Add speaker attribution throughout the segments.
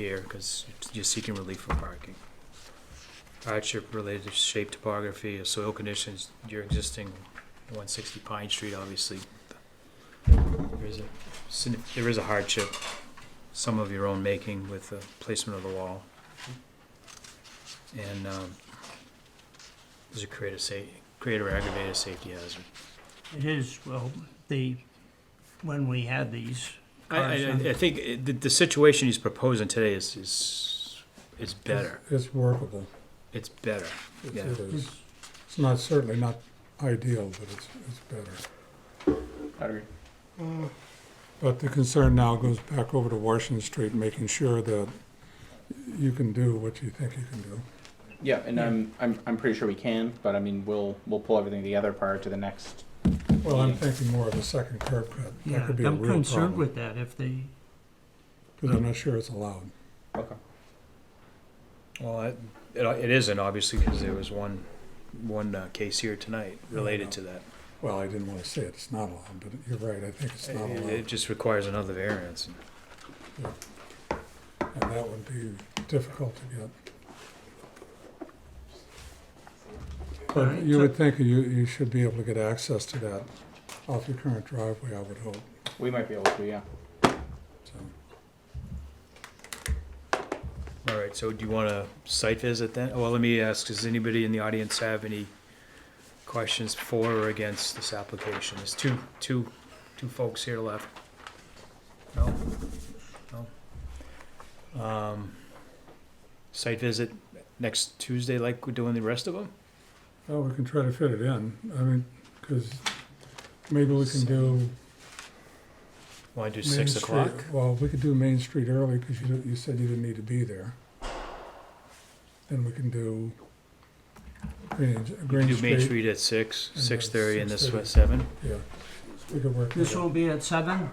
Speaker 1: here because you're seeking relief from parking. Hardship related to shape, topography, or soil conditions, your existing one sixty Pine Street, obviously. There is a, signif- there is a hardship, some of your own making with the placement of the wall. And, um, does it create a sa- create or aggravate a safety hazard?
Speaker 2: It is, well, the, when we had these,
Speaker 1: I, I,
Speaker 2: Carson.
Speaker 1: I think it- the, the situation he's proposing today is, is, is better,
Speaker 3: It's workable.
Speaker 1: it's better.
Speaker 3: It
Speaker 1: Yeah.
Speaker 3: it is. It's not, certainly not ideal, but it's, it's better.
Speaker 4: I agree.
Speaker 3: But the concern now goes back over to Washington Street, making sure that you can do what you think you can do.
Speaker 4: Yeah, and I'm, I'm, I'm pretty sure we can, but I mean, we'll, we'll pull everything together prior to the next.
Speaker 3: Well, I'm thinking more of a second curb cut. That
Speaker 2: yeah,
Speaker 3: could be a
Speaker 2: I'm
Speaker 3: real
Speaker 2: concerned
Speaker 3: problem,
Speaker 2: with that if they,
Speaker 3: because I'm not sure it's allowed.
Speaker 4: Okay.
Speaker 1: Well, it, it it isn't obviously because there was one, one uh, case here tonight related to that.
Speaker 3: Well, I didn't want to say it, it's not allowed, but you're right, I think it's not
Speaker 1: It it
Speaker 3: allowed.
Speaker 1: just requires another variance.
Speaker 3: And that would be difficult to get. But
Speaker 2: Alright,
Speaker 3: you
Speaker 2: so-
Speaker 3: would think you, you should be able to get access to that off your current driveway, I would hope.
Speaker 4: We might be able to, yeah.
Speaker 3: So,
Speaker 1: All right, so do you want a site visit then? Well, let me ask, does anybody in the audience have any questions for or against this application? There's two, two, two folks here left. No? No? Um, Site visit next Tuesday like we're doing the rest of them?
Speaker 3: Well, we can try to fit it in, I mean, because maybe we can do.
Speaker 1: Want to do
Speaker 3: Main
Speaker 1: six
Speaker 3: Street-
Speaker 1: o'clock?
Speaker 3: Well, we could do Main Street early, because you, don't- you said you didn't need to be there. Then we can do Green,
Speaker 1: We
Speaker 3: Green
Speaker 1: do Main
Speaker 3: Street,
Speaker 1: Street at six,
Speaker 3: then
Speaker 1: six thirty, and this
Speaker 3: 6:30.
Speaker 1: was seven?
Speaker 3: yeah, we could work.
Speaker 2: this
Speaker 3: that out.
Speaker 2: will be at seven,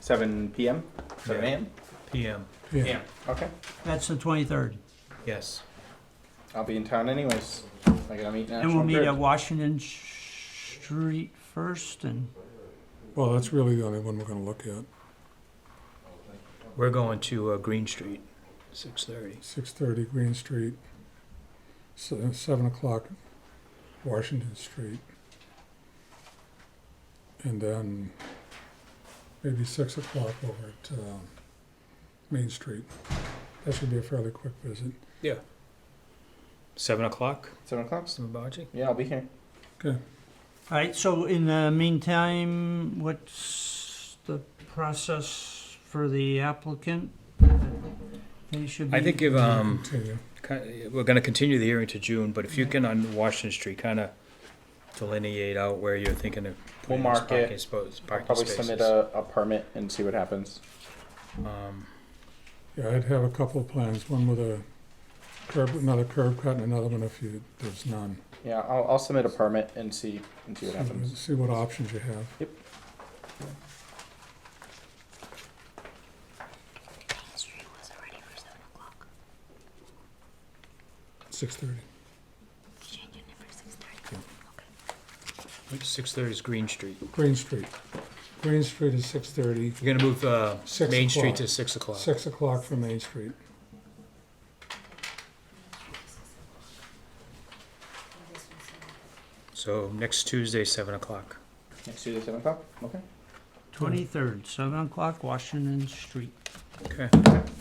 Speaker 4: Seven PM, seven
Speaker 1: Yeah.
Speaker 4: AM?
Speaker 1: PM,
Speaker 3: Yeah,
Speaker 4: Okay,
Speaker 2: that's the twenty-third.
Speaker 1: yes.
Speaker 4: I'll be in town anyways. I gotta meet
Speaker 2: And we'll
Speaker 4: National
Speaker 2: meet at
Speaker 4: Grid.
Speaker 2: Washington Street first and,
Speaker 3: well, that's really the only one we're gonna look at,
Speaker 1: We're going to uh, Green Street, six thirty.
Speaker 3: six thirty Green Street, se- seven o'clock Washington Street. And then maybe six o'clock over at, um, Main Street. That should be a fairly quick visit.
Speaker 1: Seven o'clock,
Speaker 4: Seven o'clock?
Speaker 1: Mr. Mabaji?
Speaker 4: Yeah, I'll be here.
Speaker 2: all right, so in the meantime, what's the process for the applicant? They should be.
Speaker 1: I think if, um,
Speaker 3: Continue.
Speaker 1: ki- we're gonna continue the hearing to June, but if you can on Washington Street, kinda delineate out where you're thinking of. putting
Speaker 4: We'll
Speaker 1: these
Speaker 4: mark it.
Speaker 1: parking spos-
Speaker 4: I'll
Speaker 1: Parking
Speaker 4: probably submit
Speaker 1: spaces.
Speaker 4: a, a permit and see what happens.
Speaker 1: Um,
Speaker 3: Yeah, I'd have a couple of plans, one with a curb, another curb cut and another one if you, there's none.
Speaker 4: Yeah, I'll, I'll submit a permit and see, and see what
Speaker 3: See-
Speaker 4: happens.
Speaker 3: See what options you have. Six thirty.
Speaker 1: six thirty is Green Street.
Speaker 3: Green Street. Green Street is six thirty.
Speaker 1: You're gonna move, uh,
Speaker 3: Six
Speaker 1: Main Street
Speaker 3: o'clock.
Speaker 1: to six o'clock.
Speaker 3: Six o'clock for Main Street.
Speaker 1: So next Tuesday, seven o'clock.
Speaker 4: Next Tuesday, seven o'clock? Okay.
Speaker 2: Twenty-third, seven o'clock, Washington Street.
Speaker 1: Okay,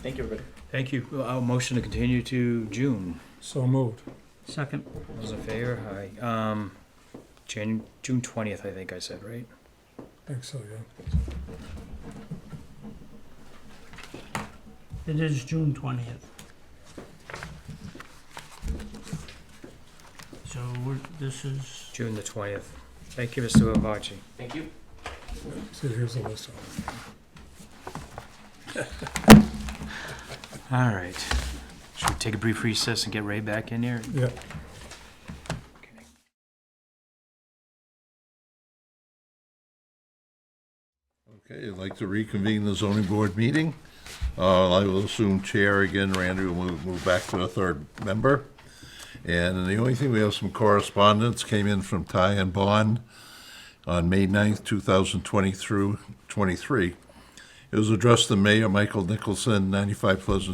Speaker 4: Thank you, everybody.
Speaker 1: thank you. Well, I'll motion to continue to June.
Speaker 3: So moved.
Speaker 2: Second,
Speaker 1: Those in favor, aye. Um, Jan, June twentieth, I think I said, right?
Speaker 3: I think so, yeah.
Speaker 2: it is June twentieth. So we're, this is.
Speaker 1: June the twentieth. Thank you, Mr. Avachi.
Speaker 4: Thank you.
Speaker 3: So here's a list of them.
Speaker 1: All right. Should we take a brief recess and get Ray back in here?
Speaker 3: Yeah.
Speaker 5: Okay, I'd like to reconvene the zoning board meeting. Uh, I will assume chair again, Randy will move, move back to the third member. And the only thing, we have some correspondence came in from Ty and Bond on May 9th, two thousand twenty through, twenty-three. It was addressed to Mayor Michael Nicholson, 95 Pleasant